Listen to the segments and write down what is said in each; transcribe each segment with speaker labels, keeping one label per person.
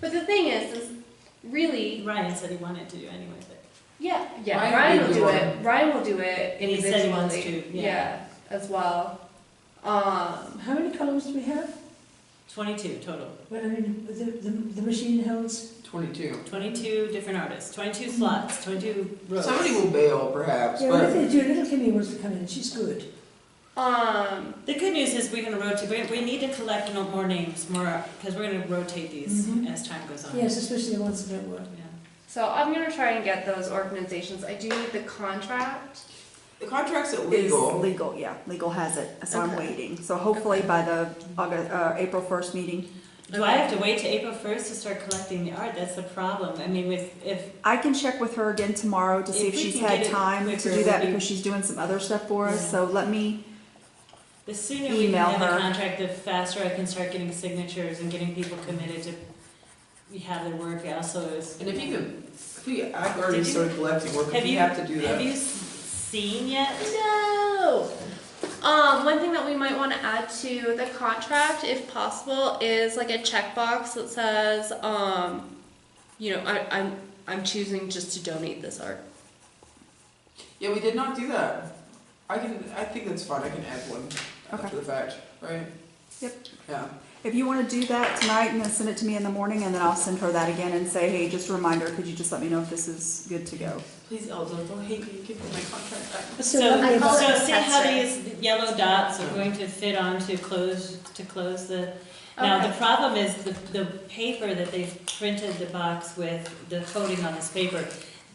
Speaker 1: But the thing is, is really,
Speaker 2: Ryan said he wanted to anyway, but
Speaker 1: yeah,
Speaker 3: Ryan
Speaker 1: yeah, Ryan
Speaker 3: would
Speaker 1: will
Speaker 3: do
Speaker 1: do
Speaker 3: it.
Speaker 1: it, Ryan will do it
Speaker 2: And he
Speaker 1: individually.
Speaker 2: said he wants to, yeah.
Speaker 1: as well. Um,
Speaker 4: How many columns do we have?
Speaker 2: twenty-two total,
Speaker 4: Well, I mean, the, the, the machine holds,
Speaker 3: Twenty-two.
Speaker 2: twenty-two different artists, twenty-two slots, twenty-two rows.
Speaker 3: Somebody will bail perhaps,
Speaker 4: yeah, what if
Speaker 3: but
Speaker 4: they do, little Kimmy wants to come in, she's good.
Speaker 1: um,
Speaker 2: The good news is we're gonna rotate, we, we need to collect no more names, more, because we're gonna rotate these
Speaker 4: Mhm.
Speaker 2: as time goes on.
Speaker 4: Yes, especially the ones that were.
Speaker 2: Yeah.
Speaker 1: so I'm gonna try and get those organizations, I do need the contract.
Speaker 3: the contract's
Speaker 5: Is
Speaker 3: illegal.
Speaker 5: legal, yeah, legal has it, so I'm
Speaker 1: Okay.
Speaker 5: waiting. So hopefully by the August, uh, April first meeting,
Speaker 2: Do I have to wait to April first to start collecting the art? That's the problem. I mean, with, if,
Speaker 5: I can check with her again tomorrow to see
Speaker 2: If
Speaker 5: if
Speaker 2: we
Speaker 5: she's
Speaker 2: can
Speaker 5: had
Speaker 2: get it
Speaker 5: time
Speaker 2: quicker,
Speaker 5: to do that
Speaker 2: we-
Speaker 5: because she's doing some other stuff for us,
Speaker 2: Yeah.
Speaker 5: so let me,
Speaker 2: the sooner we can
Speaker 5: Email
Speaker 2: have a
Speaker 5: her.
Speaker 2: contract, the faster I can start getting signatures and getting people committed to, we have their work also is.
Speaker 3: And if you can, if you, I've already
Speaker 2: Did you-
Speaker 3: started collecting work,
Speaker 2: Have
Speaker 3: if you
Speaker 2: you-
Speaker 3: have to do
Speaker 2: Have
Speaker 3: that.
Speaker 2: you s- seen yet?
Speaker 1: No. Um, one thing that we might want to add to the contract, if possible, is like a checkbox that says, um, you know, I, I'm I'm choosing just to donate this art.
Speaker 3: Yeah, we did not do that. I can, I think that's fine, I can add one after
Speaker 5: Okay.
Speaker 3: the fact, right?
Speaker 5: Yep.
Speaker 3: Yeah.
Speaker 5: if you wanna do that tonight and then send it to me in the morning and then I'll send her that again and say, hey, just a reminder, could you just let me know if this is good to go?
Speaker 3: Please, Elda, don't hate me, give me my contract back.
Speaker 4: What's
Speaker 2: So,
Speaker 4: so lovely
Speaker 1: call
Speaker 4: about,
Speaker 1: it
Speaker 2: so see how
Speaker 1: That's
Speaker 2: these yellow dots are
Speaker 3: Yeah.
Speaker 2: going to fit on to close, to close the, now, the problem is the, the paper that they've printed the box with, the coating on this paper,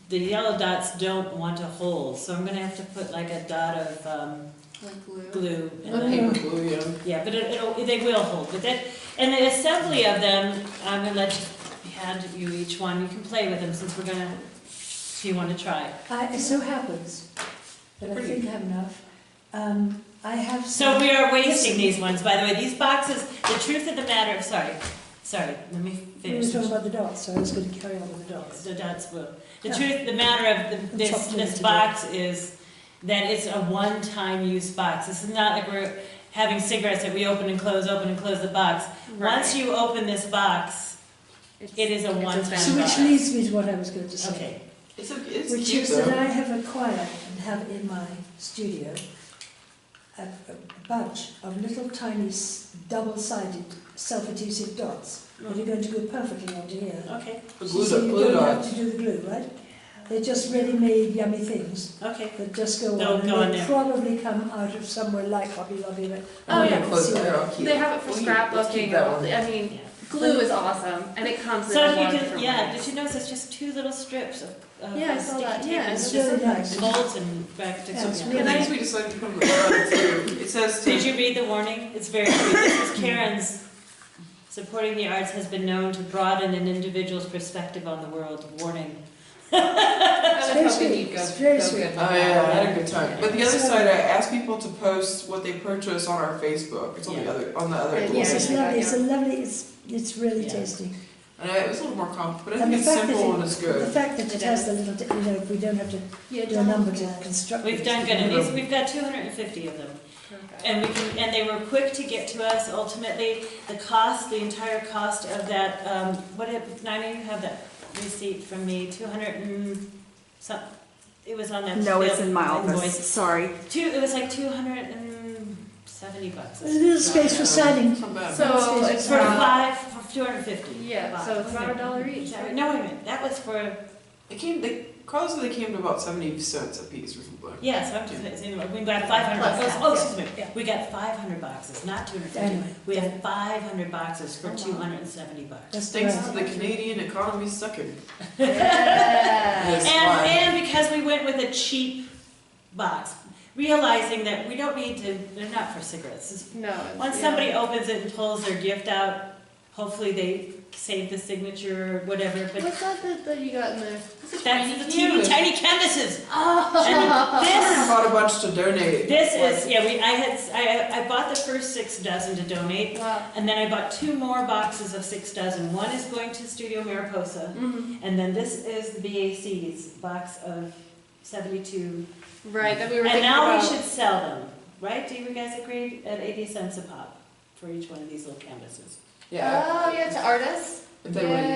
Speaker 2: the yellow dots don't want to hold, so I'm gonna have to put like a dot of, um,
Speaker 1: Like glue.
Speaker 2: glue. and
Speaker 3: Let
Speaker 2: then-
Speaker 3: me glue you.
Speaker 2: Yeah, but it, it'll, they will hold, but that, and the assembly of them, I'm gonna let you, hand you each one, you can play with them since we're gonna, if you wanna try.
Speaker 4: I, it so happens that I think I have enough. Um, I have
Speaker 2: So
Speaker 4: some,
Speaker 2: we are wasting these ones, by the way, these boxes, the truth of the matter, sorry, sorry, let me
Speaker 4: we were
Speaker 2: finish.
Speaker 4: talking about the dots, so I was gonna carry on with the dots.
Speaker 2: The dots will. The
Speaker 4: Yeah.
Speaker 2: truth, the matter of the- this,
Speaker 4: Chopped
Speaker 2: this
Speaker 4: into
Speaker 2: box is that it's a one-time use box. This is not like we're having cigarettes that we open and close, open and close the box. Once you open this box, it is a
Speaker 1: it's
Speaker 2: one-time.
Speaker 4: So which
Speaker 2: box.
Speaker 4: leads me to what I was going to say.
Speaker 2: Okay,
Speaker 3: It's, a- it's
Speaker 4: which
Speaker 3: cute
Speaker 4: is that
Speaker 3: though.
Speaker 4: I have acquired and have in my studio a, a bunch of little tiny s- double-sided self-adhesive dots that are going to go perfectly onto here.
Speaker 2: okay,
Speaker 3: The glue,
Speaker 4: so
Speaker 3: dot-
Speaker 4: you
Speaker 3: glue
Speaker 4: don't
Speaker 3: dot.
Speaker 4: have to do the glue, right? They're just ready-made yummy things
Speaker 2: okay.
Speaker 4: that just go
Speaker 2: They'll
Speaker 4: on and
Speaker 2: go on
Speaker 4: they
Speaker 2: there.
Speaker 4: probably come out of somewhere like Hobby Lobby. but
Speaker 1: Oh,
Speaker 4: I
Speaker 1: yeah.
Speaker 4: don't
Speaker 3: Close
Speaker 4: see
Speaker 3: there,
Speaker 4: it.
Speaker 3: I'll keep-
Speaker 1: They have it for
Speaker 3: we'll keep- let's keep
Speaker 1: scrapbooking.
Speaker 3: that
Speaker 1: or-
Speaker 3: one.
Speaker 1: I mean,
Speaker 2: Yeah.
Speaker 1: glue is awesome, and it comes in
Speaker 2: So
Speaker 1: a
Speaker 2: you
Speaker 1: lot of
Speaker 2: can,
Speaker 1: different
Speaker 2: yeah,
Speaker 1: ways.
Speaker 2: did you notice it's just two little strips of, of
Speaker 1: Yeah, I saw
Speaker 2: sticky
Speaker 1: that,
Speaker 2: tape
Speaker 1: yeah,
Speaker 2: and
Speaker 1: it's
Speaker 2: just
Speaker 4: really nice.
Speaker 2: Folds and back to.
Speaker 4: Yeah, it's
Speaker 2: yeah.
Speaker 3: The
Speaker 4: really
Speaker 3: things we decided to come to the bottom too, it says to.
Speaker 2: Did you read the warning? It's very clear. This is Karen's. Supporting the arts has been known to broaden an individual's perspective on the world. Warning.
Speaker 4: It's very sweet, it's very sweet.
Speaker 3: Oh yeah, I had a good time. But the other
Speaker 4: So-
Speaker 3: side, I asked people to post what they purchased on our Facebook. It's on the other, on the other.
Speaker 1: Yeah,
Speaker 3: Google.
Speaker 4: Yes, it's
Speaker 1: yeah,
Speaker 4: lovely,
Speaker 1: yeah.
Speaker 4: it's a lovely, it's, it's really
Speaker 2: Yeah.
Speaker 4: tasty.
Speaker 3: And I, it was a little more complicated, but I
Speaker 4: And the
Speaker 3: think it's
Speaker 4: fact that
Speaker 3: simple
Speaker 4: it,
Speaker 3: and it's good.
Speaker 4: the fact that it has the little, di- you know, we don't have to
Speaker 1: Yeah,
Speaker 4: do a number to construct.
Speaker 2: We've
Speaker 4: it.
Speaker 2: done good. And these, we've got two hundred and fifty of them. And we can, and they were quick to get to us. Ultimately, the cost, the entire cost of that, um, what did, Nina, you have that receipt from me, two hundred and some, it was on that.
Speaker 5: No, it's
Speaker 2: bill-
Speaker 5: in my
Speaker 2: invoice.
Speaker 5: office, sorry.
Speaker 2: Two, it was like two hundred and seventy bucks.
Speaker 4: There's a little space for signing.
Speaker 3: It's not bad.
Speaker 1: So uh,
Speaker 4: It's
Speaker 1: it's
Speaker 2: For
Speaker 1: not-
Speaker 2: five, for two hundred and fifty.
Speaker 1: Yeah, so it's about a dollar each. right?
Speaker 2: No, wait a minute, that was for,
Speaker 3: It came, they, Carlos said they came to about seventy cents a piece or something.
Speaker 2: yeah, so I'm just, it's anyway, we got five hundred
Speaker 1: Plus
Speaker 2: bucks,
Speaker 1: that,
Speaker 2: oh, excuse me,
Speaker 1: yeah.
Speaker 2: we got five hundred boxes, not two hundred fifty.
Speaker 4: Anyway,
Speaker 2: We have five hundred boxes for
Speaker 1: Oh, wow.
Speaker 2: two hundred and seventy bucks.
Speaker 4: that's the
Speaker 3: Thanks to
Speaker 4: way.
Speaker 3: the Canadian economy sucking.
Speaker 1: Yeah.
Speaker 3: Yes,
Speaker 2: And,
Speaker 3: why?
Speaker 2: and because we went with a cheap box, realizing that we don't need to, they're not for cigarettes. It's-
Speaker 1: No. it's-
Speaker 2: Once
Speaker 1: yeah.
Speaker 2: somebody opens it and pulls their gift out, hopefully they save the signature, or whatever, but
Speaker 1: What's that that, that you got in there?
Speaker 2: that's the two tiny canvases. And
Speaker 1: Oh.
Speaker 2: this
Speaker 3: I bought a bunch to donate.
Speaker 2: This is, yeah, we, I had, I, I bought the first six dozen to donate,
Speaker 1: Wow.
Speaker 2: and then I bought two more boxes of six dozen. One is going to Studio Mariposa,
Speaker 1: Mhm.
Speaker 2: and then this is the BAC's box of seventy-two.
Speaker 1: Right, that we were
Speaker 2: And
Speaker 1: thinking
Speaker 2: now we
Speaker 1: about.
Speaker 2: should sell them, right? Do you guys agree at eighty cents a pop for each one of these little canvases?
Speaker 3: Yeah.
Speaker 1: Oh, yeah, to artists?
Speaker 3: If they wanna